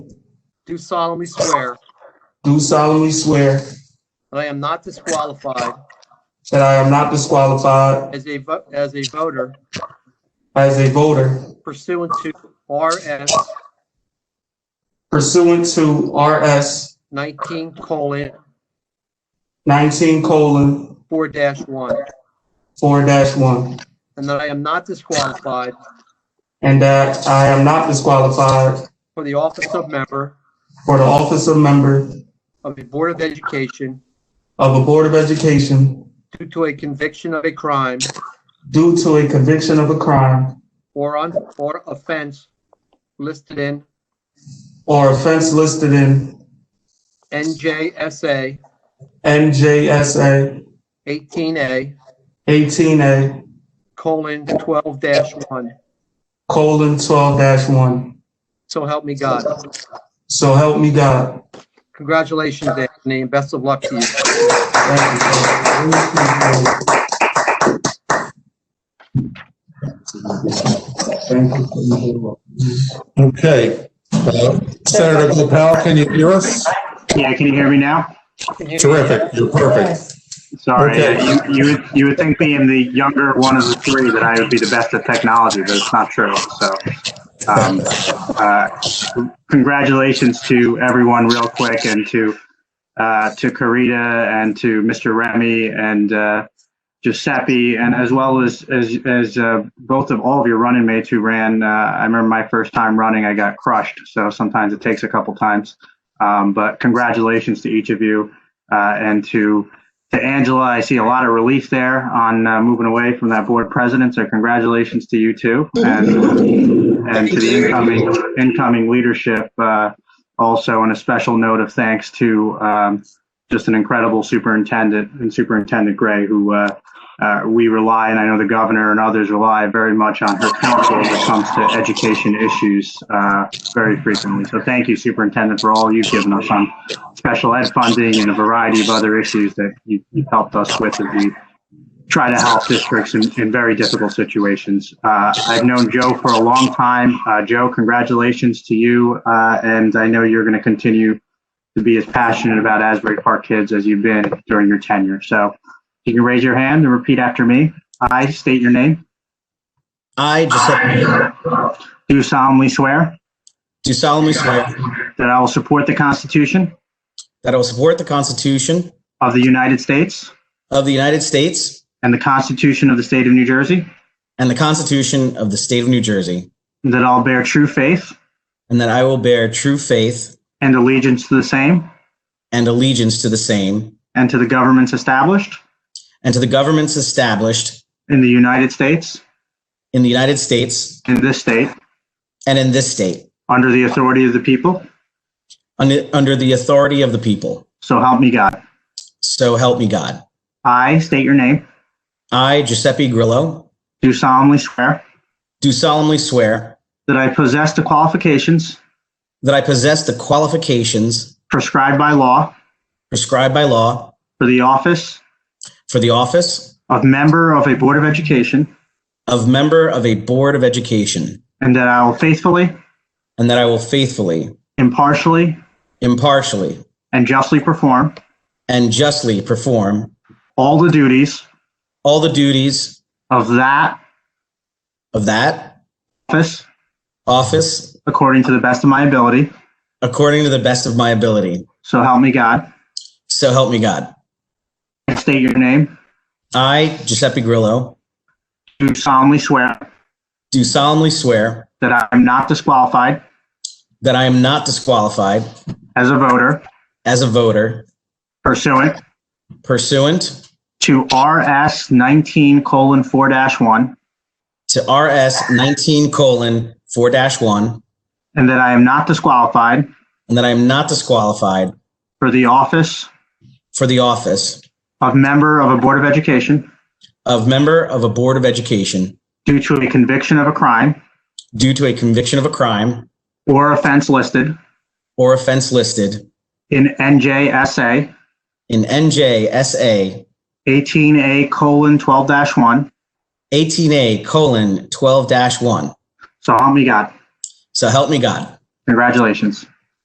do solemnly swear do solemnly swear that I am not disqualified that I am not disqualified as a, vo- as a voter as a voter pursuant to RS pursuant to RS 19 colon nineteen colon 4-1, four one, and that I am not disqualified and that I am not disqualified for the office of member for the office of member of a Board of Education of the Board of Education due to a conviction of a crime due to a conviction of a crime or on, or offense listed in or offense listed in NJSA NJSA 18A eighteen A colon 12-1. colon twelve one. So help me God. So help me God. Congratulations, Anthony, and best of luck to you. Thank you, sir. Thank you. Thank you. Okay. Uh, Senator Gopal, can you hear us? Yeah, can you hear me now? Terrific, you're perfect. Sorry, Okay. uh, you, you, would, you would think being the younger one of the three that I would be the best at technology, but it's not true. So, um, uh, congratulations to everyone, real quick, and to uh, to Karita and to Mr. Remy and uh, Giuseppe, and as well as as, as uh, both of all of your running mates who ran. Uh, I remember my first time running, I got crushed. So sometimes it takes a couple times, um, but congratulations to each of you uh, and to to Angela, I see a lot of relief there on uh, moving away from that board president. So congratulations to you too, and and to the incoming incoming leadership. Uh, also, and a special note of thanks to um, just an incredible superintendent and Superintendent Gray, who uh, uh, we rely and I know the governor and others rely very much on her counsel when it comes to education issues uh, very frequently. So thank you, Superintendent, for all you've given us on special ed funding and a variety of other issues that you, you've helped us with as we try to help districts in, in very difficult situations. Uh, I've known Joe for a long time. Uh, Joe, congratulations to you. Uh, and I know you're going to continue to be as passionate about Asbury Park kids as you've been during your tenure. So you can raise your hand and repeat after me. I state your name. I, Giuseppe, Do solemnly swear do solemnly swear that I will support the Constitution that I will support the Constitution of the United States of the United States and the Constitution of the State of New Jersey, and the Constitution of the State of New Jersey, and that I'll bear true faith and that I will bear true faith and allegiance to the same and allegiance to the same and to the governments established and to the governments established in the United States, in the United States in this state, and in this state under the authority of the people. under, under the authority of the people. So help me God. So help me God. I state your name, I, Giuseppe Grillo, do solemnly swear do solemnly swear that I possess the qualifications that I possess the qualifications prescribed by law prescribed by law for the office for the office of member of a Board of Education, of member of a Board of Education, and that I will faithfully, and that I will faithfully impartially, impartially and justly perform and justly perform all the duties all the duties of that of that office office according to the best of my ability. according to the best of my ability. So help me God. So help me God. I state your name, I, Giuseppe Grillo, do solemnly swear do solemnly swear that I am not disqualified that I am not disqualified as a voter as a voter pursuant pursuant to RS 19 colon 4 dash 1, to RS 19 colon 4 1, and that I am not disqualified and that I am not disqualified for the office for the office of member of a Board of Education of member of a Board of Education due to a conviction of a crime due to a conviction of a crime or offense listed or offense listed in NJSA in NJSA 18A colon 12 dash 1. 18A colon 12 dash 1. So help me God. So help me God. Congratulations.